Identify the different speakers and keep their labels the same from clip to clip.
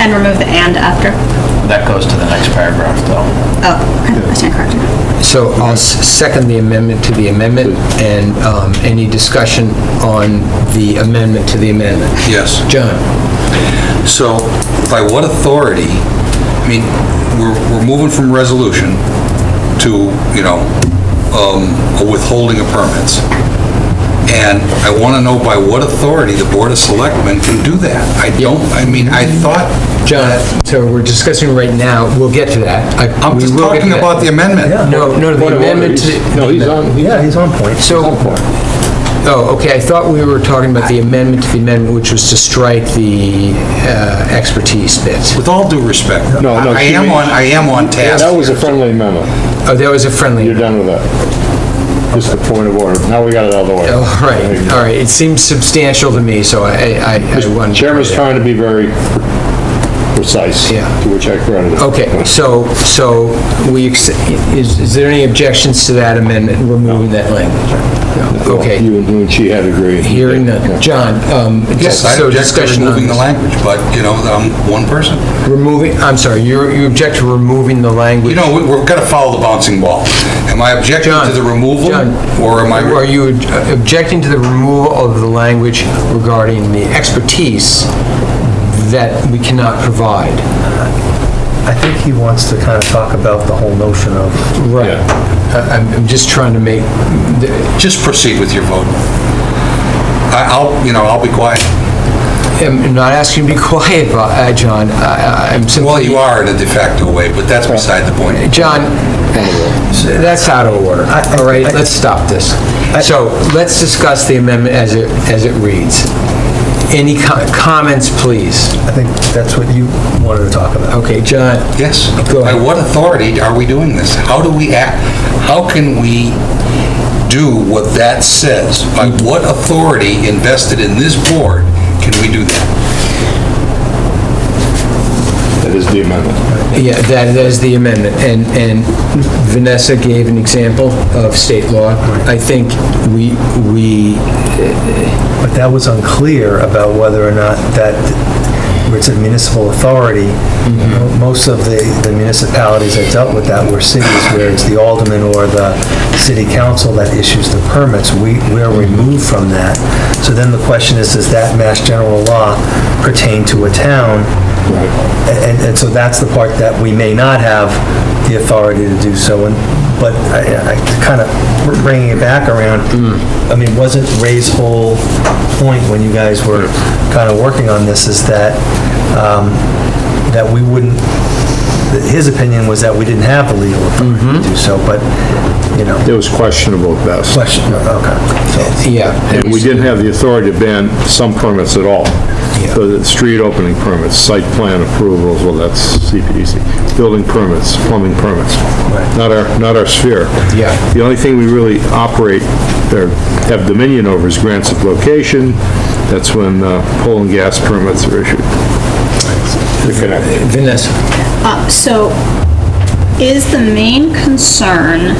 Speaker 1: And remove the and after.
Speaker 2: That goes to the next paragraph, though.
Speaker 1: Oh, okay, I stand corrected.
Speaker 3: So I'll s- second the amendment to the amendment, and um, any discussion on the amendment to the amendment?
Speaker 4: Yes.
Speaker 3: John?
Speaker 4: So by what authority, I mean, we're, we're moving from resolution to, you know, um, a withholding of permits. And I want to know by what authority the Board of Selectmen can do that. I don't, I mean, I thought,
Speaker 3: John, so we're discussing right now, we'll get to that. I-
Speaker 4: I'm
Speaker 3: we
Speaker 4: just
Speaker 3: will get to
Speaker 4: talking
Speaker 3: that.
Speaker 4: about the amendment.
Speaker 3: No, no, the
Speaker 5: Point of order,
Speaker 3: amendment to...
Speaker 5: he's-
Speaker 3: the-
Speaker 5: No, he's on, yeah, he's on point. He's
Speaker 3: So-
Speaker 5: on point.
Speaker 3: Oh, okay, I thought we were talking about the amendment to the amendment, which was to strike the uh, expertise bit.
Speaker 4: With all due respect,
Speaker 5: No, no,
Speaker 4: I
Speaker 5: she
Speaker 4: am
Speaker 5: means-
Speaker 4: on, I am on
Speaker 5: Yeah,
Speaker 4: task.
Speaker 5: That was a friendly amendment.
Speaker 3: Oh, that was a friendly...
Speaker 5: You're done with that. Just the point of order. Now we got it out of the way.
Speaker 3: Oh, right, all right, it seems substantial to me, so I, I I wanted... to-
Speaker 5: Chairman's trying to be very precise,
Speaker 3: Yeah.
Speaker 5: to which I credit him.
Speaker 3: Okay, so, so we, ex- is, is there any objections to that amendment, removing that language? No,
Speaker 5: Well,
Speaker 3: Okay,
Speaker 5: You and you and she had agreed.
Speaker 3: hearing
Speaker 5: Yeah.
Speaker 3: none. John, um,
Speaker 4: Yes,
Speaker 3: just
Speaker 4: I
Speaker 3: so
Speaker 4: object to
Speaker 3: discussion on
Speaker 4: removing the
Speaker 3: this.
Speaker 4: language, but, you know, I'm one person.
Speaker 3: Removing, I'm sorry, you, you object to removing the
Speaker 4: You
Speaker 3: language?
Speaker 4: know, we- we've got to follow the bouncing ball. Am I objecting
Speaker 3: John,
Speaker 4: to the removal?
Speaker 3: John,
Speaker 4: Or am I?
Speaker 3: Are you objecting to the removal of the language regarding the expertise that we cannot provide?
Speaker 6: I think he wants to kind of talk about the whole notion of,
Speaker 3: Right. I- I'm, I'm just trying to make,
Speaker 4: Just proceed with your vote. I- I'll, you know, I'll be quiet.
Speaker 3: I'm not asking you to be quiet, but, uh, John, I- I- I'm simply...
Speaker 4: Well, you are in a de facto way, but that's beside the point.
Speaker 3: John, that's out of order, all right? Let's stop this. So let's discuss the amendment as it, as it reads. Any co- comments, please?
Speaker 6: I think that's what you wanted to talk about.
Speaker 3: Okay, John,
Speaker 4: Yes.
Speaker 3: Go ahead.
Speaker 4: By what authority are we doing this? How do we act? How can we do what that says? By
Speaker 3: Mm-hmm.
Speaker 4: what authority invested in this board can we do that?
Speaker 5: That is the amendment.
Speaker 3: yeah, that, that is the amendment, and, and Vanessa gave an example of state law. I think we, we,
Speaker 6: But that was unclear about whether or not that, where it said municipal authority, most of the the municipalities that dealt with that were cities where it's the alderman or the city council that issues the permits. We, we're removed from that. So then the question is, does that mass general law pertain to a town? And, and so that's the part that we may not have the authority to do so. And, but I, I kind of bringing it back around, I mean, wasn't Ray's whole point when you guys were kind of working on this is that, um, that we wouldn't, that his opinion was that we didn't have the legal authority to do so, but, you know,
Speaker 5: It was questionable at best.
Speaker 6: question, okay. So,
Speaker 3: yeah,
Speaker 5: And we didn't have the authority to ban some permits at all. So the street opening permits, site plan approvals, well, that's CPDC, building permits, plumbing permits. Not our, not our sphere.
Speaker 3: Yeah.
Speaker 5: The only thing we really operate or have dominion over is grants of location. That's when uh, coal and gas permits are issued. They're connected.
Speaker 3: Vanessa.
Speaker 1: Uh, So is the main concern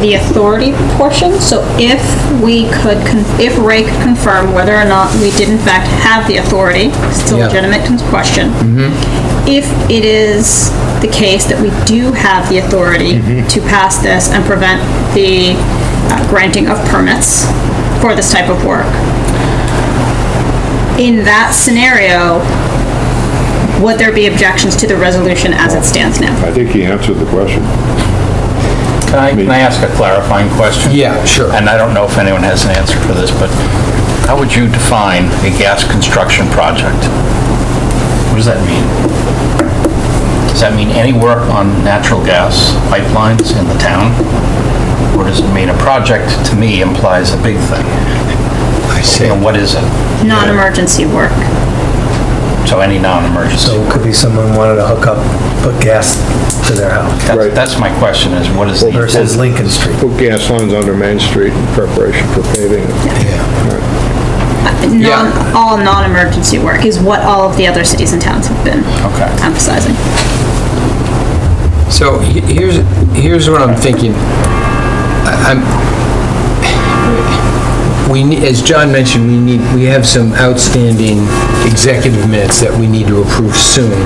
Speaker 1: the authority portion? So if we could, con- if Ray could confirm whether or not we did in fact have the authority, still
Speaker 3: Yeah.
Speaker 1: legitimate con- question. If it is the case that we do have the authority to pass this and prevent the uh, granting of permits for this type of work, in that scenario, would there be objections to the resolution as it stands now?
Speaker 5: I think he answered the question.
Speaker 2: Can I, can I ask a clarifying question?
Speaker 3: Yeah, sure.
Speaker 2: And I don't know if anyone has an answer for this, but how would you define a gas construction project? What does that mean? Does that mean any work on natural gas pipelines in the town? Or does it mean a project, to me, implies a big thing? I see. And what is it?
Speaker 1: non-emergency work.
Speaker 2: So any non-emergency?
Speaker 6: So it could be someone wanted to hook up, put gas to their house
Speaker 2: That's-
Speaker 5: Right.
Speaker 2: That's my question, is what is the...
Speaker 6: versus Lincoln Street.
Speaker 5: Put gas lines under Main Street in preparation for paving.
Speaker 1: Non, all non-emergency work is what all of the other cities and towns have been
Speaker 2: Okay.
Speaker 1: emphasizing.
Speaker 3: So he- here's, here's what I'm thinking. I- I'm, we, ne- as John mentioned, we need, we have some outstanding executive minutes that we need to approve soon.